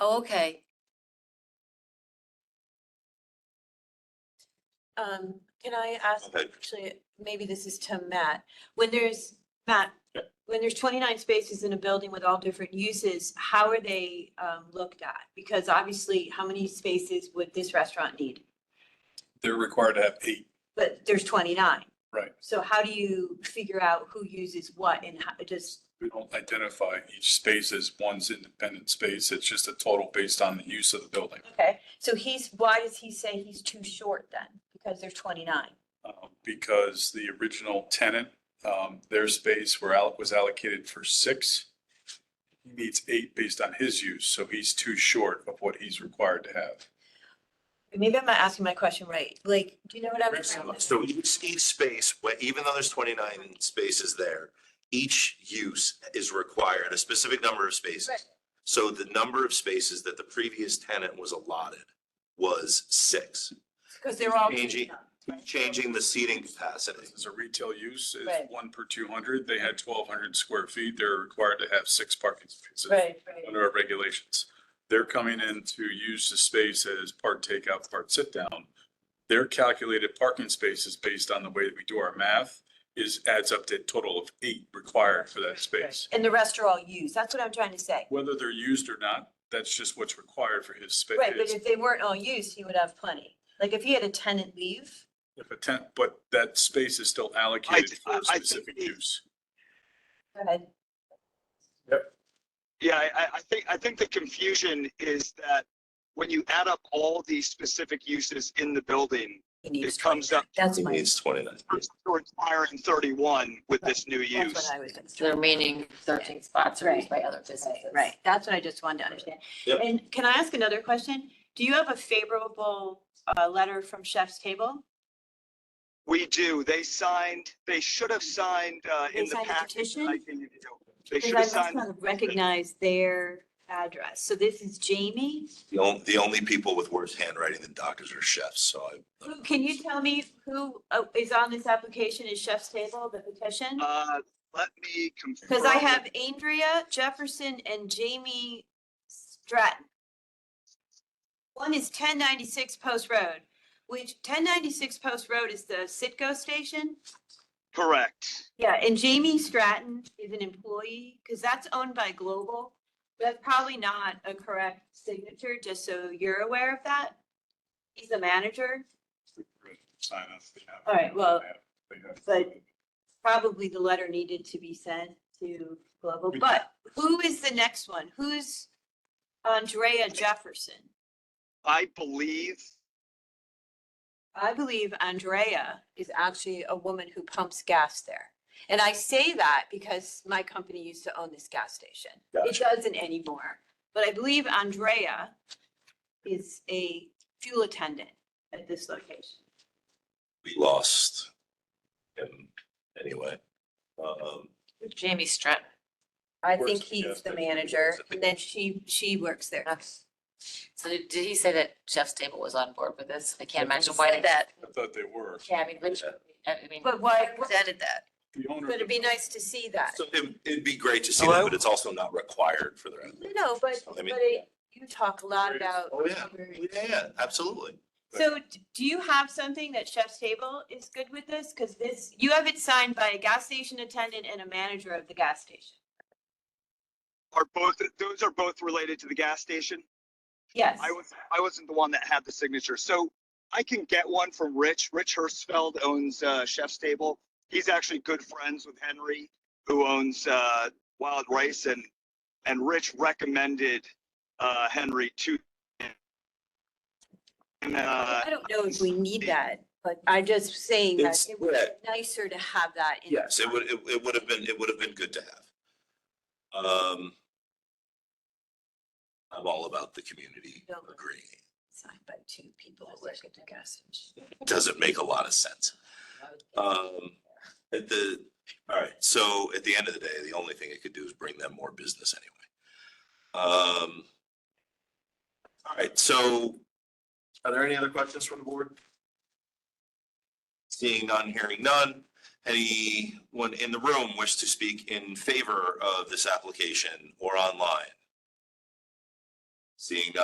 Oh, okay. Um, can I ask, Okay. actually, maybe this is to Matt, when there's, Matt, Yeah. when there's twenty-nine spaces in a building with all different uses, how are they, um, looked at? Because obviously, how many spaces would this restaurant need? They're required to have eight. But there's twenty-nine. Right. So how do you figure out who uses what and how, just, We don't identify each space as one's independent space. It's just a total based on the use of the building. okay, so he's, why does he say he's too short then? Because there's twenty-nine. uh, Because the original tenant, um, their space were out, was allocated for six. He needs eight based on his use, so he's too short of what he's required to have. Maybe I'm not asking my question right, like, do you know what I'm? So each, each space, wh- even though there's twenty-nine spaces there, each use is required a specific number of Right. spaces. So the number of spaces that the previous tenant was allotted was six, Because they're all. Angie. 29, right? changing the seating capacity. This is a retail use, Right. it's one per two hundred. They had twelve hundred square feet. They're required to have six parking spaces. Right, right. under our regulations. They're coming in to use the space as part takeout, part sit down. Their calculated parking spaces based on the way that we do our math is adds up to a total of eight required for that space. And the rest are all used. That's what I'm trying to say. Whether they're used or not, that's just what's required for his space. Right, but if they weren't all used, he would have plenty. Like if he had a tenant leave, If a tenant, but that space is still allocated for I- a I think specific the- use. go ahead. Yeah, I, I- I think, I think the confusion is that when you add up all these specific uses in the building, he needs it comes 20. up That's He my, needs twenty-nine. to requiring thirty-one with this new that's what use. I was gonna The say. remaining thirteen spots are used by other businesses. Right, Right, that's what I just wanted to understand. Yep. And can I ask another question? Do you have a favorable, uh, letter from Chef's Table? We do, they signed, they should have signed, uh, They in the signed a package. that I petition? gave you. They Because should I have must signed. not have recognized their address. So this is Jamie. The only, the only people with worse handwriting than doctors are chefs, so I. Who, can you tell me who uh, is on this application is Chef's Table, the petition? Uh, let me confirm. Because I have Andrea Jefferson and Jamie Stratton. One is ten ninety-six Post Road, which ten ninety-six Post Road is the Citgo station. Correct. Yeah, and Jamie Stratton is an employee, because that's owned by Global. That's probably not a correct signature, just so you're aware of that. He's the manager, Sign up. they have- All right, well, they have- but- probably the letter needed to be sent to Global, We- but who is the next one? Who's Andrea Jefferson? I believe, I believe Andrea is actually a woman who pumps gas there. And I say that because my company used to own this gas station. It doesn't anymore. But I believe Andrea is a fuel attendant at this location. We lost him anyway. Um, Jamie Stratton. I Works think at the gas he's the station. manager and then she, she works there. So did did he say that Chef's Table was on board with this? I can't imagine why that. I thought they were. Yeah, I mean, which, I mean. But why, Presented that. The owner. but it'd be nice to see that. So it, it'd be great to see that, but it's also not required for the. No, but, I but mean- it- you talk a lot Great. about. Oh, yeah. Yeah, yeah, absolutely. So d- do you have something that Chef's Table is good with this? Because this, you have it signed by a gas station attendant and a manager of the gas station. are both, those are both related to the gas station. Yes. I was, I wasn't the one that had the signature, so I can get one from Rich. Rich Hirschfeld owns uh, Chef's Table. He's actually good friends with Henry, who owns uh, Wild Rice, and and Rich recommended uh, Henry to. And, uh, I don't know if we need that, but I'm just saying that It's- it would be nicer to have that. in Yes, it would, it, it would have been, it would have been good to have. Um. I'm all about the community Don't worry. agreeing. Signed by two people who work at the gas station. It Doesn't make a lot of sense. Um, at the, all right, so at the end of the day, the only thing it could do is bring them more business anyway. Um. All right, so are there any other questions from the board? Seeing none, hearing none. Anyone in the room wish to speak in favor of this application or online? Seeing none,